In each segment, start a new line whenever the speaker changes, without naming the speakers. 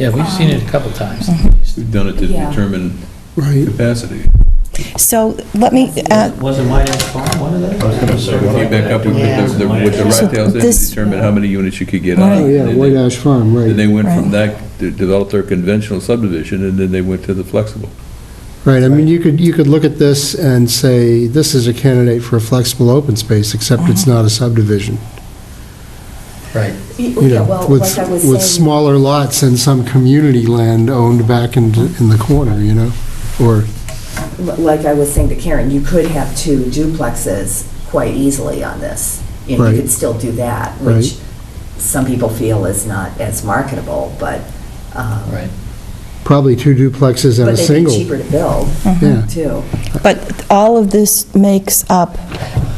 Yeah, we've seen it a couple times at least.
We've done it to
Yeah.
determine
Right.
capacity.
So let me, uh,
Wasn't my fault, one of those? I was gonna say.
We came back up with the- the, with the
So
rat tail thing to
this-
determine how many units you could get on.
Oh, yeah, White Ash Farm,
Then
right.
they went from
Right.
that, they developed their conventional subdivision, and then they went to the flexible.
Right, I mean, you could, you could look at this and say, this is a candidate for a flexible open space, except it's
Uh-huh.
not a subdivision.
Right.
You
Yeah,
know,
well,
with,
like I was
with
saying,
smaller lots and some community land owned back in, in the corner, you know? Or,
like I was saying to Karen, you could have two duplexes quite easily on this. You know,
Right.
you could still do that,
Right.
which some people feel is not as marketable, but, um,
Right.
probably two duplexes and a
but they'd be
single.
cheaper to build,
Yeah,
too.
but all of this makes up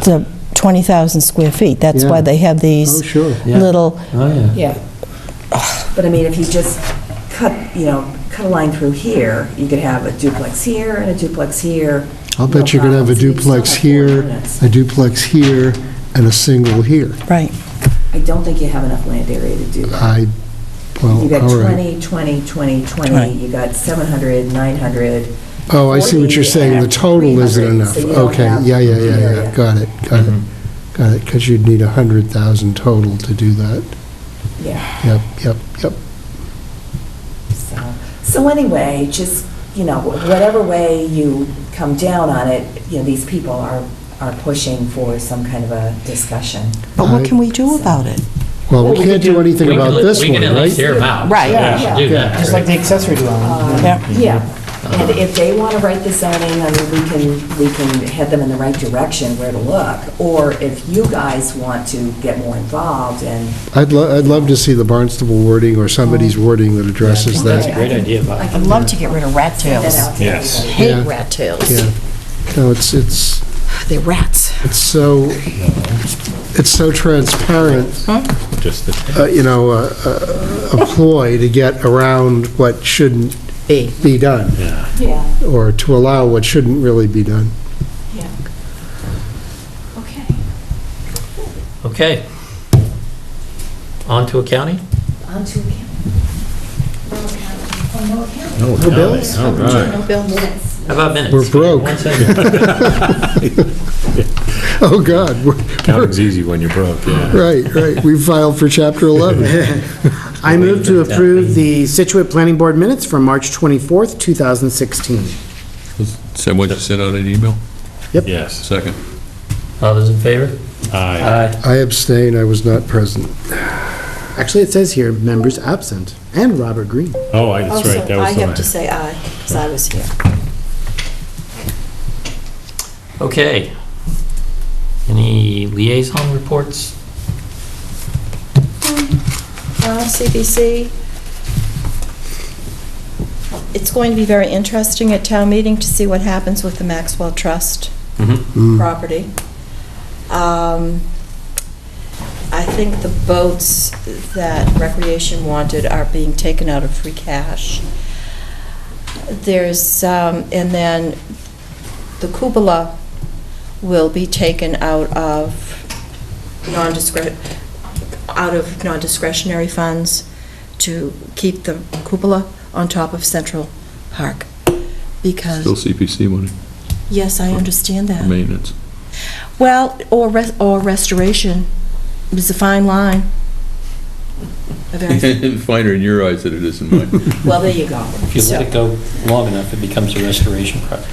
the 20,000 square feet. That's why
Yeah.
they have
oh,
these
sure.
Yeah.
little,
Oh, yeah.
Yeah. But I mean, if you just cut, you know, cut a line through here, you could have a duplex here and a duplex here.
I'll bet you could have a
No problems. You still
duplex
have four
here,
units.
a duplex here, and a single here.
right.
I don't think you have enough land area to do that.
I, well,
You got
all right.
20, 20, 20, 20,
Right.
you got 700, 900.
Oh, I see what you're
40
saying, the
and
total isn't
300,
enough.
so you don't
Okay,
have
yeah, yeah, yeah, yeah,
area.
got it, got it, got it, because you'd need 100,000 total to do that.
Yeah,
Yep, yep, yep.
so, so anyway, just, you know, whatever way you come down on it, you know, these people are, are pushing for some kind of a discussion.
But what can we do about it?
Well, we can't do anything
We can
about
at-
this
We
one,
can at least
right?
hear them out.
Right.
So we should do
Yeah.
that,
Just
right?
like the accessory dwelling.
Um,
Yeah.
Yeah, and if they want to write the zoning, I mean, we can, we can head them in the right direction where to look. Or if you guys want to get more involved and.
I'd lo, I'd love to see the Barnstable wording or somebody's wording that addresses
That's a
that.
great idea, Bob.
I'd
I'd love to get rid of rat tails.
Yes.
Yeah.
Hate rat tails.
Yeah. No, it's, it's,
They're rats.
it's so, it's so transparent,
Just the
uh, you know, a- a a ploy to get around what shouldn't
Be.
be done.
Yeah,
or to allow what shouldn't really be done.
yeah. Okay.
Okay. On to accounting?
On to account. No account. Oh, no account.
No bills?
All right.
No bill
Minutes.
How about minutes?
We're broke.
One second.
Oh, God, we're-
Counting's easy when you're broke, yeah.
right, right, we filed for Chapter 11.
I move to approve the Situate Planning Board minutes from March 24th, 2016.
Send what you sent out an email?
Yes.
Second.
All those in favor?
Uh,
Aye.
Aye.
I abstain, I was not present.
Actually, it says here, members absent, and Robert Green.
Oh, I- that's
Also,
right, that
I
was the
have to
one.
say aye, because I was here.
Okay. Any liaison reports?
Uh, CBC, it's going to be very interesting at town meeting to see what happens with the Maxwell Trust
Hmm.
property. Um, I think the boats that Recreation wanted are being taken out of free cash. There's, um, and then the cupola will be taken out of non-discretion, out of non-discretionary funds to keep the cupola on top of Central Park,
Still
because,
CPC money,
yes, I understand that.
maintenance.
Well, or, res- or restoration is a fine line. A very-
Finer in your eyes than it is in mine.
Well, there you go.
If you let
So-
it go long enough, it becomes a restoration project.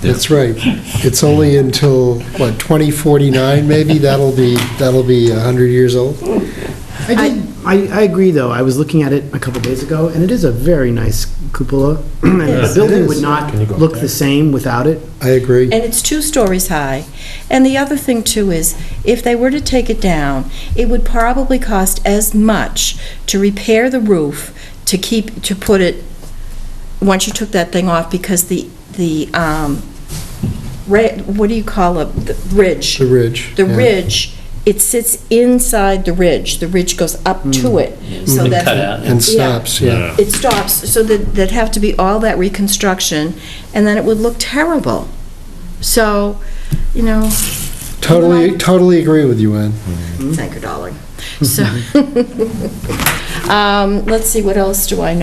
That's right, it's only until, what, 2049, maybe, that'll be, that'll be 100 years old?
I did, I, I agree, though, I was looking at it a couple days ago, and it is a very nice cupola. And the
Yes, it
building
is.
would not
Can you go up
look
there?
the same without it.
I agree.
And it's two stories high. And the other thing, too, is if they were to take it down, it would probably cost as much to repair the roof, to keep, to put it, once you took that thing off, because the, the, um, ra- what do you call it, the ridge?
The ridge.
The
yeah.
ridge, it sits inside the ridge. The ridge goes up to it. So
Mm.
They
that
cut out.
And stops, yeah.
Yeah.
It stops, so that, that'd have to be all that reconstruction, and then it would look terrible. So, you know,
Totally, totally agree with you, Ann.
Thank you, darling. So, um, let's see, what else do I know?